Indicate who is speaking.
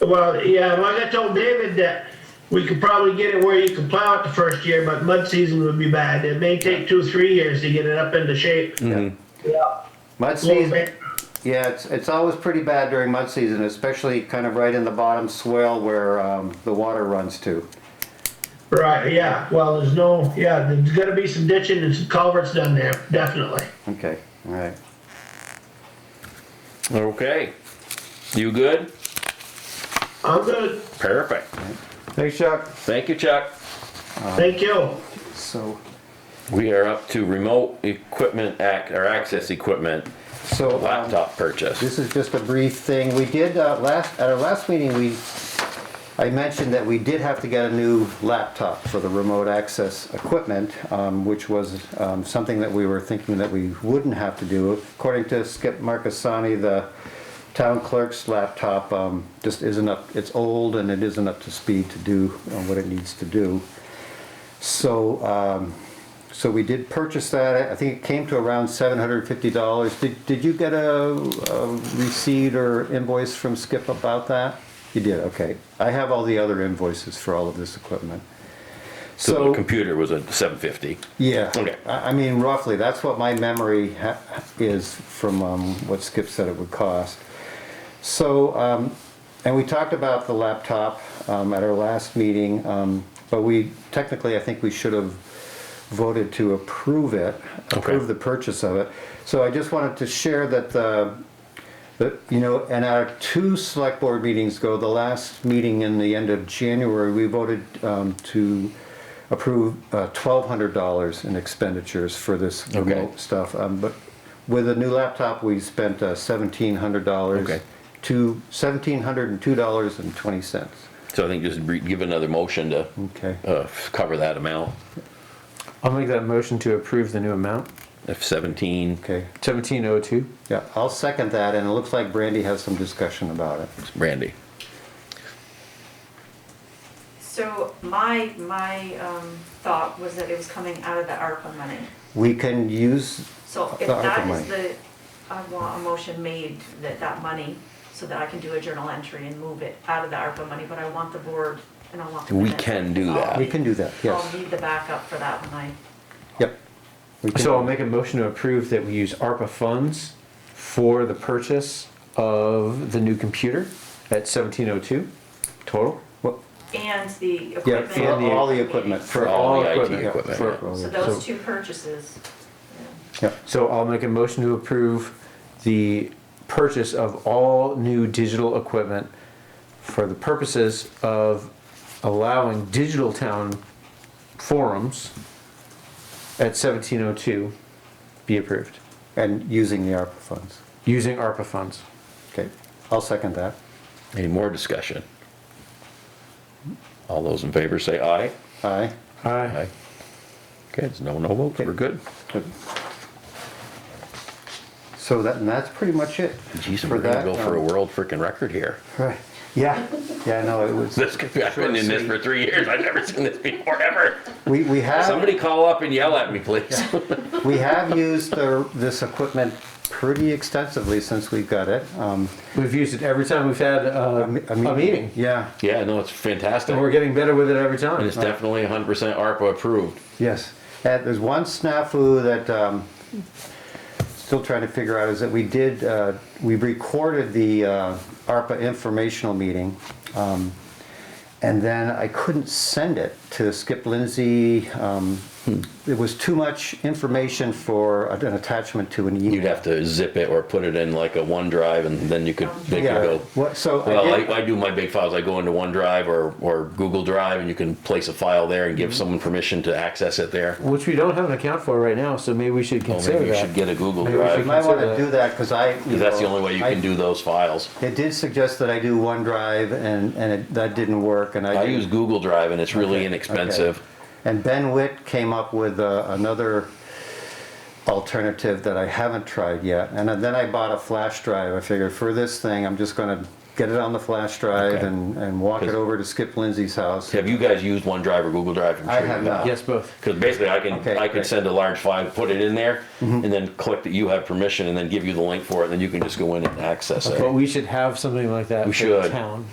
Speaker 1: Well, yeah, like I told David, that we could probably get it where you could plow it the first year, but mud season would be bad. It may take two, three years to get it up into shape. Yeah.
Speaker 2: Mud
Speaker 1: A little
Speaker 2: season,
Speaker 1: bit.
Speaker 2: yeah, it's, it's always pretty bad during mud season, especially kind of right in the bottom swell where, um, the water runs to.
Speaker 1: Right, yeah, well, there's no, yeah, there's gotta be some ditching and some culverts done there, definitely.
Speaker 2: Okay, all right.
Speaker 3: Okay. You good?
Speaker 1: I'm good,
Speaker 3: Perfect.
Speaker 2: Thanks, Chuck.
Speaker 3: Thank you, Chuck.
Speaker 1: thank you.
Speaker 2: So,
Speaker 3: We are up to remote equipment act, or access equipment,
Speaker 2: so. um,
Speaker 3: laptop purchase.
Speaker 2: This is just a brief thing. We did, uh, last, at our last meeting, we, I mentioned that we did have to get a new laptop for the remote access equipment, um, which was, um, something that we were thinking that we wouldn't have to do. According to Skip Marcassani, the town clerk's laptop, um, just isn't up, it's old and it isn't up to speed to do uh, what it needs to do. So, um, so we did purchase that, I think it came to around seven hundred and fifty dollars. Did, did you get a, a receipt or invoice from Skip about that? You did, okay. I have all the other invoices for all of this equipment.
Speaker 3: So the
Speaker 2: So,
Speaker 3: computer was a seven fifty.
Speaker 2: yeah,
Speaker 3: Okay.
Speaker 2: I, I mean roughly, that's what my memory ha- is from, um, what Skip said it would cost. So, um, and we talked about the laptop, um, at our last meeting, um, but we, technically, I think we should have voted to approve it, approve the purchase of it. So I just wanted to share that uh, the, that, you know, and our two select board meetings go, the last meeting in the end of January, we voted, um, to approve, uh, twelve hundred dollars in expenditures for this
Speaker 3: Okay.
Speaker 2: remote stuff, um, but with a new laptop, we spent uh, seventeen hundred dollars.
Speaker 3: Okay.
Speaker 2: To seventeen hundred and two dollars and twenty cents.
Speaker 3: So I think just re- give another motion to,
Speaker 2: Okay.
Speaker 3: uh, cover that amount
Speaker 4: I'll make that motion to approve the new amount,
Speaker 3: of seventeen.
Speaker 2: Okay.
Speaker 4: seventeen oh two.
Speaker 2: Yeah, I'll second that, and it looks like Brandy has some discussion about it.
Speaker 3: Randy,
Speaker 5: So my, my, um, thought was that it was coming out of the ARPA money.
Speaker 2: We can use.
Speaker 5: So if
Speaker 2: The ARPA
Speaker 5: that
Speaker 2: money.
Speaker 5: is the, I want a motion made that that money, so that I can do a journal entry and move it out of the ARPA money, but I want the board and I want the.
Speaker 3: We
Speaker 5: minutes.
Speaker 3: can do that.
Speaker 2: We can do that, yes.
Speaker 5: I'll need the backup for that when I,
Speaker 2: Yep. We can-
Speaker 4: So I'll make a motion to approve that we use ARPA funds for the purchase of the new computer at seventeen oh two total.
Speaker 2: Well,
Speaker 5: and the
Speaker 2: Yeah,
Speaker 5: equipment.
Speaker 2: for all the equipment.
Speaker 4: For
Speaker 3: all
Speaker 4: all
Speaker 3: the IT
Speaker 4: equipment.
Speaker 3: equipment,
Speaker 4: For-
Speaker 2: yeah.
Speaker 5: So those two purchases,
Speaker 2: Yep.
Speaker 4: So I'll make a motion to approve the purchase of all new digital equipment for the purposes of allowing digital town forums at seventeen oh two be approved,
Speaker 2: And using the ARPA funds.
Speaker 4: using ARPA funds.
Speaker 2: Okay, I'll second that.
Speaker 3: any more discussion? All those in favor say aye.
Speaker 2: Aye.
Speaker 4: Aye.
Speaker 3: Okay, it's no, no votes, we're good.
Speaker 2: Good. So that, and that's pretty much it.
Speaker 3: Jeez,
Speaker 2: for
Speaker 3: we're gonna
Speaker 2: that,
Speaker 3: go for a
Speaker 2: um,
Speaker 3: world freaking record here.
Speaker 2: Right, yeah, yeah, no, it was,
Speaker 3: This, could be- I've been in this for three years, I've never seen this before, ever.
Speaker 2: we, we have.
Speaker 3: Somebody call up and yell at me, please.
Speaker 2: We have used the, this equipment pretty extensively since we've got it. Um,
Speaker 4: We've used it every time we've had uh,
Speaker 2: me-
Speaker 4: a meeting.
Speaker 2: Yeah,
Speaker 3: Yeah, no, it's fantastic.
Speaker 4: And we're getting better with it every
Speaker 3: And
Speaker 4: time.
Speaker 3: it's definitely hundred percent ARPA approved.
Speaker 2: yes. And there's one snafu that, um, still trying to figure out is that we did, uh, we recorded the, uh, ARPA informational meeting. um, And then I couldn't send it to Skip Lindsey. Um, it was too much information for an attachment to an email.
Speaker 3: You'd have to zip it or put it in like a OneDrive and then you could, they could
Speaker 2: Yeah.
Speaker 3: go.
Speaker 2: What, so. I
Speaker 3: Well,
Speaker 2: did-
Speaker 3: I, I do my big files, I go into OneDrive or, or Google Drive and you can place a file there and give
Speaker 2: Mm-hmm.
Speaker 3: someone permission to access it there.
Speaker 4: Which we don't have an account for right now, so maybe we should
Speaker 3: Well, maybe
Speaker 4: consider
Speaker 3: you should
Speaker 4: that.
Speaker 3: get a Google
Speaker 4: Maybe we should
Speaker 2: You
Speaker 3: Drive,
Speaker 2: might want to
Speaker 4: Consider-
Speaker 2: do that, because I.
Speaker 3: because that's the only way you
Speaker 2: I-
Speaker 3: can do those files.
Speaker 2: It did suggest that I do OneDrive, and, and it- that didn't work, and I.
Speaker 3: I
Speaker 2: did-
Speaker 3: use Google Drive and it's really
Speaker 2: Okay,
Speaker 3: inexpensive.
Speaker 2: okay. And Ben Witt came up with uh, another alternative that I haven't tried yet, and then I bought a flash drive. I figured for this thing, I'm just going to get it on the flash drive
Speaker 3: Okay.
Speaker 2: and, and walk it
Speaker 3: Because-
Speaker 2: over to Skip Lindsey's house.
Speaker 3: Have you guys used OneDrive or Google Drive? I'm
Speaker 2: I
Speaker 3: sure you
Speaker 2: have not.
Speaker 4: Yes, both.
Speaker 3: Because basically, I can
Speaker 2: Okay,
Speaker 3: I can
Speaker 2: great. Mm-hmm.
Speaker 3: send a large file, put it in there, and then click that you have permission, and then give you the link for it, and then you can just go in and access it.
Speaker 4: But we should have something like that
Speaker 3: We
Speaker 4: for the
Speaker 3: should.
Speaker 4: town.